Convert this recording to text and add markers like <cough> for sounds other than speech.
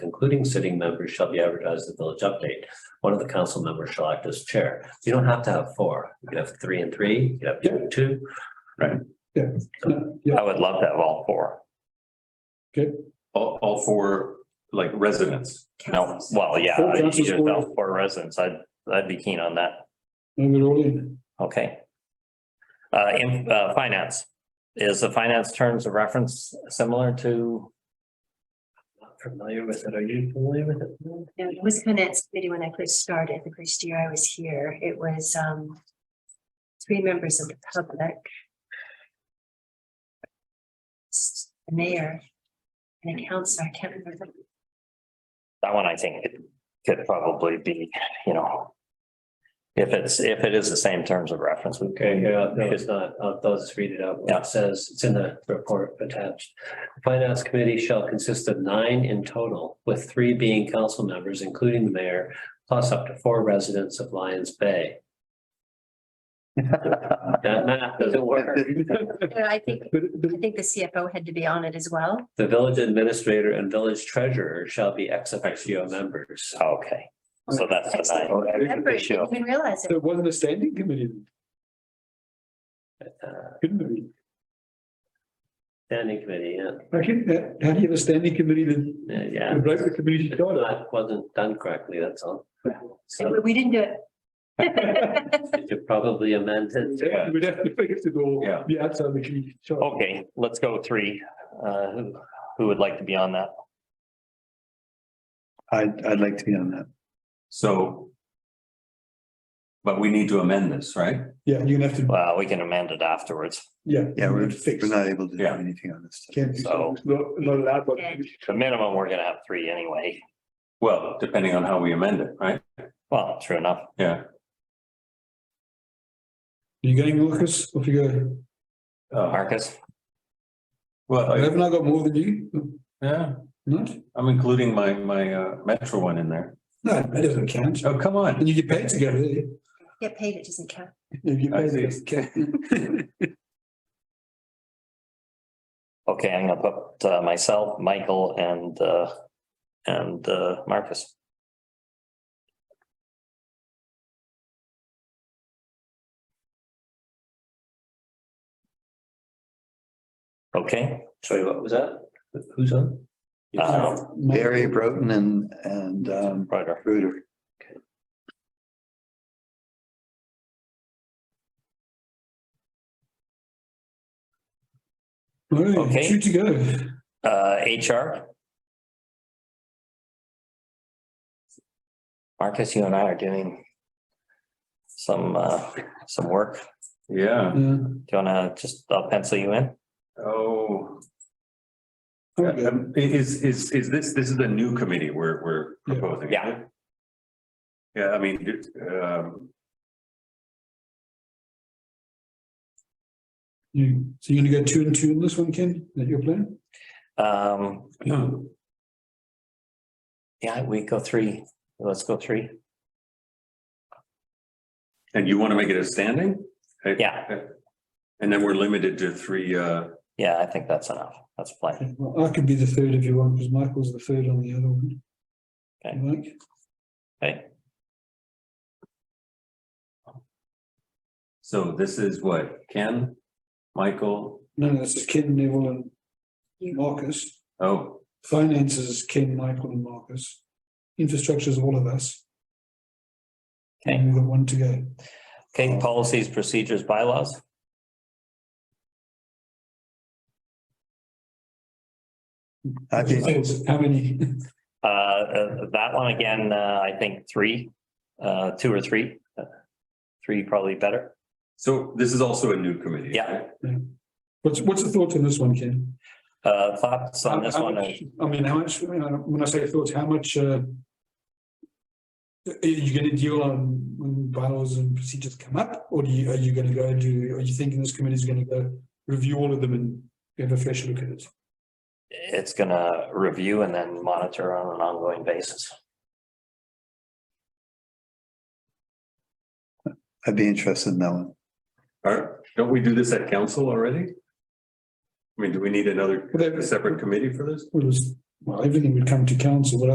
including sitting members, shall be advertised in the village update. One of the council members shall act as chair. You don't have to have four. You can have three and three, you can have two and two. I would love to have all four. All, all four, like residents. No, well, yeah, Four you councils, just four- have four residents. I'd, I'd be keen on that. I'm gonna roll in. Okay. Uh, in, uh, finance, is the finance terms of reference similar to, Not Familiar with it? Are you familiar with it? No, it was finance committee when I first started, the first year I was here, it was um. Three members of the public. s- the Mayor. And a counselor, I can't remember. the- that one I think it could probably be, you know. If it's, if it is the same terms of reference, we Okay, yeah, no, it's not. I'll I'll just read it out. what Yeah. It says, it's in the report attached. The Finance committee shall consist of nine in total, with three being council members, including the mayor, plus up to four residents of Lions <laughs> Bay. That math doesn't work. Yeah, I think, But, but I think the CFO had to be on it as well. The village administrator and village treasurer shall be ex officio members. Okay, so that's the nine. Oh, I- Remember, I didn't even realize it. there wasn't a standing committee, then, uh, couldn't there be? Standing committee, yeah. I can, how do you have a standing committee that, yeah, yeah. right, the committee should go to? That wasn't done correctly, that's all. We- So We didn't do it. <laughs> you could probably amend it. Yeah, we'd have to fix it all, Yeah. be outside the committee. chart. Okay, let's go three. Uh, who, who would like to be on that? Oh, I'd, I'd like to be on that. So. But we need to amend this, right? Yeah, you're gonna have to, Well, we can amend it afterwards. yeah. Yeah, you're we're, gonna fix. we're not able to do Yeah. anything on this. Can't do, So- it's not, not allowed, but. Yeah. The minimum, we're gonna have three anyway. Well, depending on how we amend it, right? Well, true enough. Yeah. You going, Lucas, off you go, Uh, Marcus, Well, I- haven't I got more than you? yeah, Not? I'm including my, my uh, Metro one in there. No, that doesn't count, Oh, come on. and you get paid to go there. Get paid, it doesn't count. You get I paid see. to go. okay, I'm gonna put uh, myself, Michael and, uh, and, uh, Marcus. Okay, Sorry, what was that? Who's on? uh, Barry Broughton and, and, um, Ryder, Bruder. Right, Okay. two to go. uh, HR. Marcus, you and I are doing some, uh, some work. Yeah. Yeah, Do you wanna just, I'll pencil you in? oh. Okay. Um, Is, is, is this, this is the new committee we're, we're Yeah. proposing? Yeah. isn't it? Yeah, I mean, it, um, You, so you're gonna go two and two in this one, Ken? Is that your plan? Um, No. yeah, we go three, let's go three. and you want to make it a standing? Okay. Yeah. And then we're limited to three, uh, Yeah, I think that's enough. That's plenty. Okay, well, I could be the third if you want, because Michael's the third on the other one. Okay. You Like, Okay. so this is what, Ken, Michael, no, no, this is Ken, Neville and You. Marcus. oh, Finances is Ken, Michael and Marcus. Infrastructure is all of us. Okay. And we've got one to go. Okay, policies, procedures, bylaws. I'd be, How many? <laughs> Uh, uh, that one again, uh, I think three, uh, two or three. Uh, Three probably better. so this is also a new committee? Yeah. right? What's, what's the thought on this one, Ken? Uh, thoughts on this How- how one? much- I mean, how much, when I- when I say thoughts, how much, uh, are you gonna deal on when bylaws and procedures come up? Or do you, are you gonna go and do, are you thinking this committee is gonna go review all of them and have a fresh look at it? It's gonna review and then monitor on an ongoing basis. I'd be interested in that one. Are, don't we do this at council already? I mean, do we need another, Well, they- a separate committee for this? Well, it was- well, everything would come to council, but